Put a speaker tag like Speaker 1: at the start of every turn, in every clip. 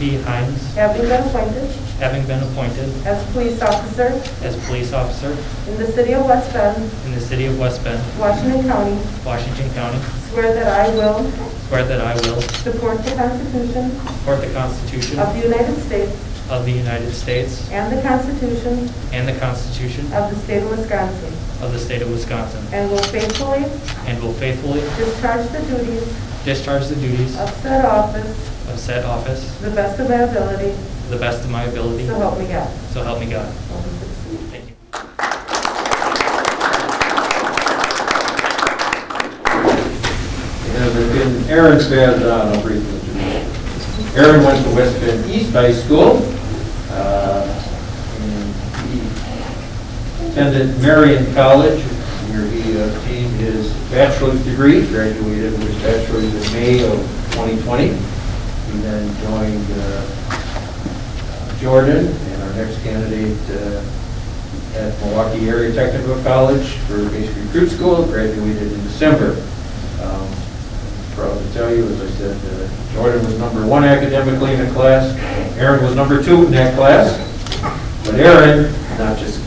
Speaker 1: B. Hines,
Speaker 2: having been appointed
Speaker 1: having been appointed
Speaker 2: as police officer
Speaker 1: as police officer
Speaker 2: in the city of West Bend,
Speaker 1: in the city of West Bend,
Speaker 2: Washington County,
Speaker 1: Washington County,
Speaker 2: swear that I will
Speaker 1: swear that I will
Speaker 2: support the Constitution
Speaker 1: support the Constitution
Speaker 2: of the United States
Speaker 1: of the United States
Speaker 2: and the Constitution
Speaker 1: and the Constitution
Speaker 2: of the state of Wisconsin,
Speaker 1: of the state of Wisconsin,
Speaker 2: and will faithfully
Speaker 1: and will faithfully
Speaker 2: discharge the duties
Speaker 1: discharge the duties
Speaker 2: of said office
Speaker 1: of said office
Speaker 2: to the best of my ability,
Speaker 1: to the best of my ability,
Speaker 2: so help me God.
Speaker 1: so help me God.
Speaker 2: Welcome to the seat.
Speaker 1: Thank you.
Speaker 3: And it's been Aaron's been, uh, I'll briefly introduce you. Aaron went to West Bend East High School. uh, and he Attended Marion College, where he obtained his bachelor's degree, graduated with his bachelor's in May of 2020. He then joined uh, Jordan and our next candidate uh, at Milwaukee Area Technical College for basic recruit school, graduated in December. Um, Proud to tell you, as I said, uh, Jordan was number one academically in the class, Aaron was number two in that class, but Aaron, not just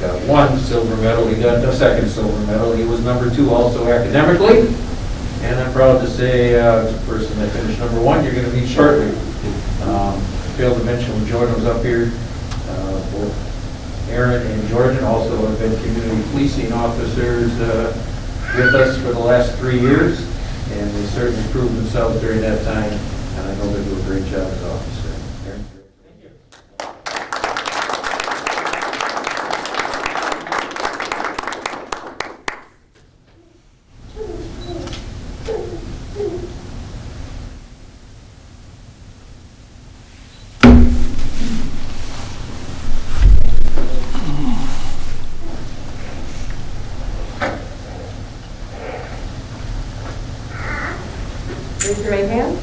Speaker 3: got one silver medal, he got the second silver medal, he was number two also academically, and I'm proud to say, uh, the person that finished number one, you're gonna meet shortly. Um, Failed to mention when Jordan was up here, uh, both Aaron and Jordan also have been community policing officers, uh, with us for the last three years, and they certainly proved themselves during that time, and I know they do a great job as officers. Aaron?
Speaker 2: Raise your right hand.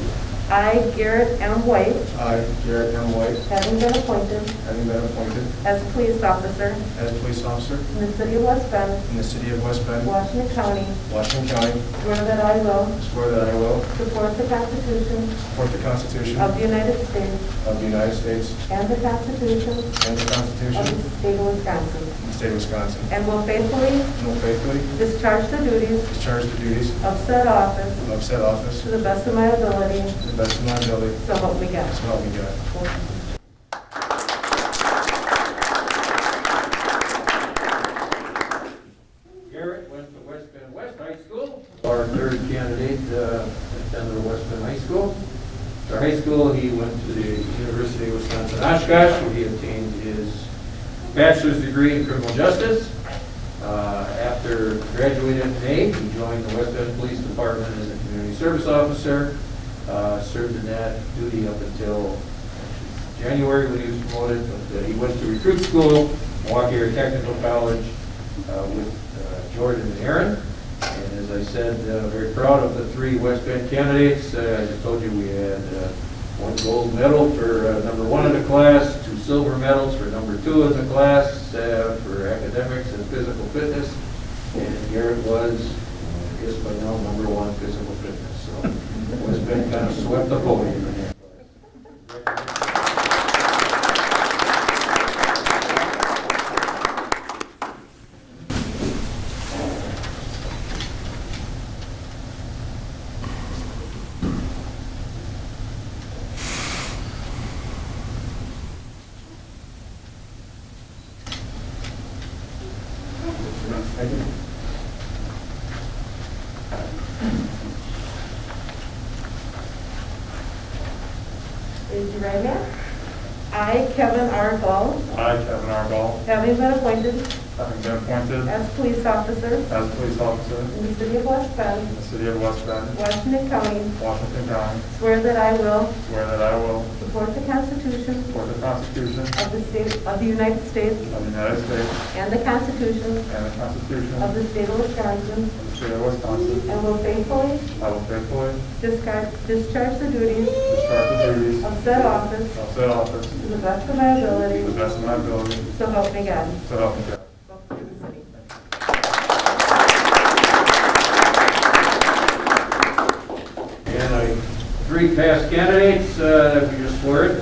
Speaker 2: I, Garrett M. White,
Speaker 4: I, Garrett M. White,
Speaker 2: having been appointed
Speaker 4: having been appointed
Speaker 2: as police officer
Speaker 4: as police officer
Speaker 2: in the city of West Bend,
Speaker 4: in the city of West Bend,
Speaker 2: Washington County,
Speaker 4: Washington County,
Speaker 2: swear that I will
Speaker 4: swear that I will
Speaker 2: support the Constitution
Speaker 4: support the Constitution
Speaker 2: of the United States
Speaker 4: of the United States
Speaker 2: and the Constitution
Speaker 4: and the Constitution
Speaker 2: of
Speaker 4: of
Speaker 2: the state of Wisconsin,
Speaker 4: the state of Wisconsin,
Speaker 2: and will faithfully
Speaker 4: and will faithfully
Speaker 2: discharge the duties
Speaker 4: discharge the duties
Speaker 2: of said office
Speaker 4: of said office
Speaker 2: to the best of my ability,
Speaker 4: to the best of my ability,
Speaker 2: so help me God.
Speaker 4: so help me God.
Speaker 3: Garrett went to West Bend West High School. Our third candidate uh, attended West Bend High School. After high school, he went to the University of Wisconsin Oshkosh, where he obtained his bachelor's degree in criminal justice. Uh, After graduating in May, he joined the West Bend Police Department as a community service officer, uh, served in that duty up until January when he was promoted, but uh, he went to recruit school, Milwaukee Area Technical College uh, with uh, Jordan and Aaron. And as I said, uh, very proud of the three West Bend candidates. Uh, As I told you, we had uh, one gold medal for uh, number one in the class, two silver medals for number two in the class uh, for academics and physical fitness. And Garrett was, I guess by now, number one physical fitness. So West Bend kind of swept the podium in that class.
Speaker 2: Raise your right hand. I, Kevin R. Ball,
Speaker 5: I, Kevin R. Ball,
Speaker 2: having been appointed
Speaker 5: having been appointed
Speaker 2: as police officer
Speaker 5: as police officer
Speaker 2: in the city of West Bend,
Speaker 5: in the city of West Bend,
Speaker 2: Washington County,
Speaker 5: Washington County,
Speaker 2: swear that I will
Speaker 5: swear that I will
Speaker 2: support the Constitution
Speaker 5: support the Constitution
Speaker 2: of the state, of the United States
Speaker 5: of the United States
Speaker 2: and the Constitution
Speaker 5: and the Constitution
Speaker 2: of
Speaker 5: of
Speaker 2: the state of Wisconsin,
Speaker 5: the state of Wisconsin.
Speaker 2: and will faithfully
Speaker 5: I will faithfully
Speaker 2: discard- discharge the duties
Speaker 5: discharge the duties
Speaker 2: of said office
Speaker 5: of said office
Speaker 2: to the best of my
Speaker 5: to the
Speaker 2: ability,
Speaker 5: best of my ability,
Speaker 2: so help me God.
Speaker 5: so help me God.
Speaker 2: Welcome to the city.
Speaker 3: And I, three past candidates uh, that we just swear it